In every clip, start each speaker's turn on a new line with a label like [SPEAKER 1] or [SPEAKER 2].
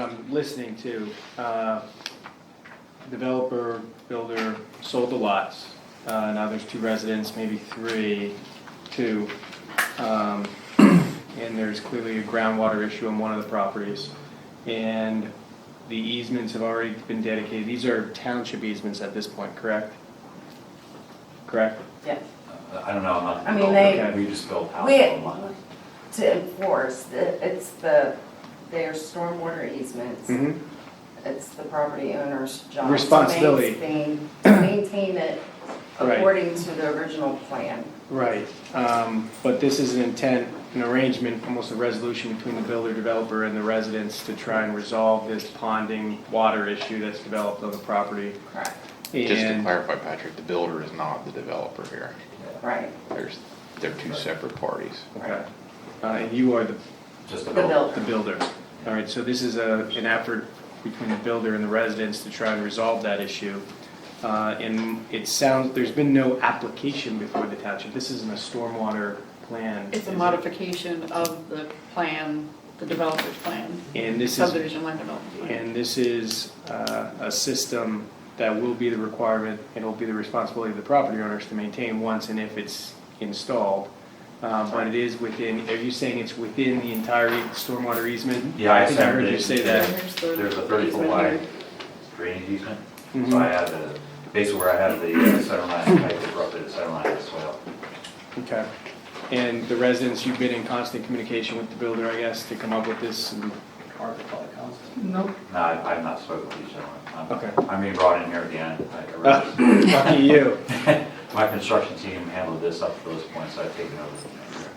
[SPEAKER 1] I'm listening to, uh, developer, builder sold the lots. Uh, Now there's two residents, maybe three, two. Um, And there's clearly a groundwater issue on one of the properties. And the easements have already been dedicated. These are township easements at this point, correct? Correct?
[SPEAKER 2] Yeah,
[SPEAKER 3] I don't know, I'm not.
[SPEAKER 2] I mean, they-
[SPEAKER 3] Okay, We just built house
[SPEAKER 2] We-
[SPEAKER 3] online.
[SPEAKER 2] to enforce, the- it's the, their stormwater easements,
[SPEAKER 1] Mm-hmm.
[SPEAKER 2] it's the property owner's job. to
[SPEAKER 1] Responsibility.
[SPEAKER 2] Maintain, maintain it
[SPEAKER 1] Right.
[SPEAKER 2] according to the original plan.
[SPEAKER 1] Right, um, but this is an intent, an arrangement, almost a resolution between the builder developer and the residents to try and resolve this ponding water issue that's developed on the property.
[SPEAKER 2] Correct.
[SPEAKER 4] Just to
[SPEAKER 1] And,
[SPEAKER 4] clarify, Patrick, the builder is not the developer here.
[SPEAKER 2] Right,
[SPEAKER 4] There's, they're two separate parties.
[SPEAKER 1] okay, uh, and you are the,
[SPEAKER 3] Just
[SPEAKER 2] the
[SPEAKER 3] a build.
[SPEAKER 1] the
[SPEAKER 2] builder,
[SPEAKER 1] builder. All right, so this is a, an effort between the builder and the residents to try and resolve that issue. Uh, and it sounds, there's been no application before the township, this isn't a stormwater plan. is
[SPEAKER 5] It's a
[SPEAKER 1] it?
[SPEAKER 5] modification of the plan, the developer's plan,
[SPEAKER 1] And this is
[SPEAKER 5] subdivision land development plan.
[SPEAKER 1] And this is uh, a system that will be the requirement, and will be the responsibility of the property owners to maintain once and if it's installed. Uh, But it is within, are you saying it's within the entire stormwater easement?
[SPEAKER 3] Yeah, I
[SPEAKER 1] think I heard you
[SPEAKER 3] separated
[SPEAKER 1] say
[SPEAKER 3] it.
[SPEAKER 5] Yeah,
[SPEAKER 1] that.
[SPEAKER 5] here's the
[SPEAKER 3] There's a thirty foot
[SPEAKER 5] easement
[SPEAKER 3] wide
[SPEAKER 5] here.
[SPEAKER 3] drainage easement,
[SPEAKER 1] Mhm.
[SPEAKER 3] so I have the, basically where I have the uh, center line, I have roughly the center line as well.
[SPEAKER 1] Okay. And the residents, you've been in constant communication with the builder, I guess, to come up with this? and-
[SPEAKER 5] Nope,
[SPEAKER 3] No, I- I've not spoken with each other.
[SPEAKER 1] Okay.
[SPEAKER 3] I'm being brought in here at the end. I- I
[SPEAKER 1] Ah,
[SPEAKER 3] really-
[SPEAKER 1] Lucky you.
[SPEAKER 3] My construction team handled this up to those points, I've taken over from there.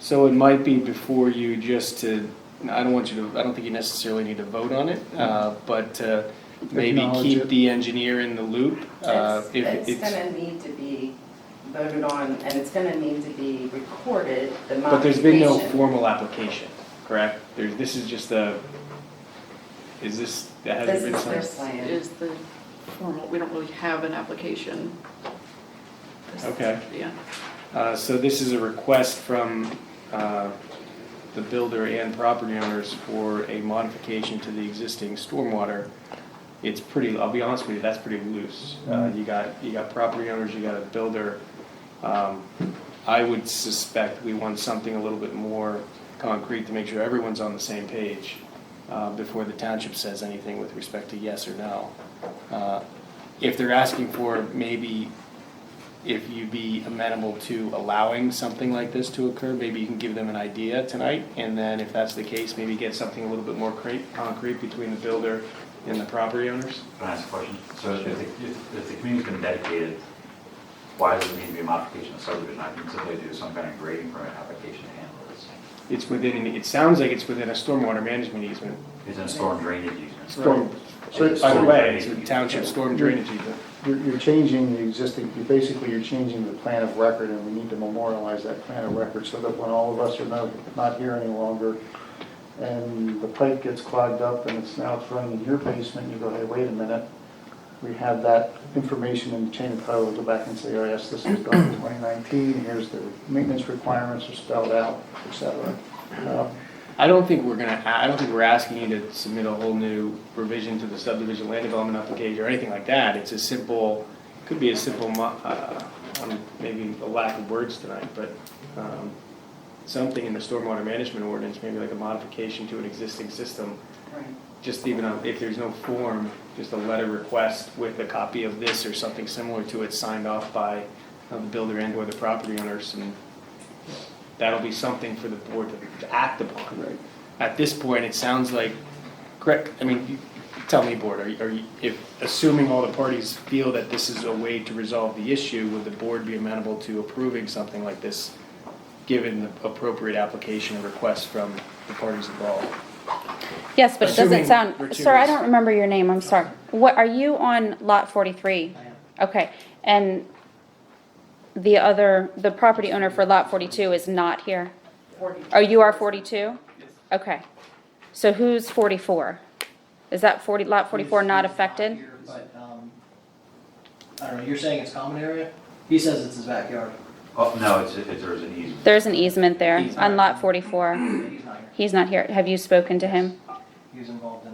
[SPEAKER 1] So it might be before you just to, I don't want you to, I don't think you necessarily need to vote on it, uh, but uh, maybe
[SPEAKER 6] Mm-hmm. Acknowledge
[SPEAKER 1] keep
[SPEAKER 6] it.
[SPEAKER 1] the engineer in the loop. uh,
[SPEAKER 2] it's,
[SPEAKER 1] if
[SPEAKER 2] it's gonna need to be voted on, and it's gonna need to be recorded, the
[SPEAKER 1] But there's been no
[SPEAKER 2] modification.
[SPEAKER 1] formal application, correct? There's, this is just a, is this, that
[SPEAKER 2] This
[SPEAKER 1] hasn't been
[SPEAKER 2] is their
[SPEAKER 1] signed?
[SPEAKER 5] it
[SPEAKER 2] plan,
[SPEAKER 5] is the formal, we don't really have an application. This is-
[SPEAKER 1] Okay.
[SPEAKER 5] Yeah,
[SPEAKER 1] Uh, So this is a request from uh, the builder and property owners for a modification to the existing stormwater. It's pretty, I'll be honest with you, that's pretty loose. Uh, You got, you got property owners, you got a builder. Um, I would suspect we want something a little bit more concrete to make sure everyone's on the same page uh, before the township says anything with respect to yes or no. Uh, If they're asking for maybe if you'd be amenable to allowing something like this to occur, maybe you can give them an idea tonight, and then if that's the case, maybe get something a little bit more cre- concrete between the builder and the property owners?
[SPEAKER 3] Can I ask a question? So if, the- if, if the community's been dedicated, why does it need to be a modification of subdivision? I can simply do some kind of grading permit application to handle this.
[SPEAKER 1] It's within, it sounds like it's within a stormwater management easement,
[SPEAKER 3] It's in storm drainage easement.
[SPEAKER 1] storm,
[SPEAKER 3] So it's
[SPEAKER 1] by the
[SPEAKER 3] storm
[SPEAKER 1] way, it's a
[SPEAKER 3] drainage.
[SPEAKER 1] township storm drainage easement.
[SPEAKER 6] You're, you're changing the existing, you basically, you're changing the plan of record, and we need to memorialize that plan of record so that when all of us are no- not here any longer, and the pipe gets clogged up and it's now thrown in your basement, you go, hey, wait a minute, we have that information in the chain of title, go back and say, oh, yes, this was done in 2019, here's the maintenance requirements are spelled out, et cetera. Uh,
[SPEAKER 1] I don't think we're gonna, I don't think we're asking you to submit a whole new revision to the subdivision land development application or anything like that. It's a simple, could be a simple, mo- uh, um, maybe a lack of words tonight, but um, something in the stormwater management ordinance, maybe like a modification to an existing system,
[SPEAKER 2] right.
[SPEAKER 1] just even a- if there's no form, just a letter request with a copy of this or something similar to it signed off by uh, the builder and or the property owners, and that'll be something for the board to act upon.
[SPEAKER 6] Right.
[SPEAKER 1] At this point, it sounds like, correct, I mean, you- tell me, board, are you- are you, if, assuming all the parties feel that this is a way to resolve the issue, would the board be amenable to approving something like this, given the appropriate application and request from the parties involved?
[SPEAKER 7] Yes, but it
[SPEAKER 1] Assuming
[SPEAKER 7] doesn't
[SPEAKER 1] we're
[SPEAKER 7] sound,
[SPEAKER 1] two
[SPEAKER 7] sir, I
[SPEAKER 1] weeks.
[SPEAKER 7] don't remember your name, I'm sorry. What, are you on lot forty-three? Okay, and the other, the property owner for lot forty-two is not here? Oh, you are forty-two? Okay, so who's forty-four? Is that forty, lot forty-four not affected?
[SPEAKER 8] But, um, I don't know, you're saying it's common area? He says it's his backyard,
[SPEAKER 3] Oh, no, it's, it's, there's an easement.
[SPEAKER 7] There's an easement there on lot forty-four.
[SPEAKER 8] but he's not here,
[SPEAKER 7] He's not here, have you spoken to him?
[SPEAKER 8] he was involved in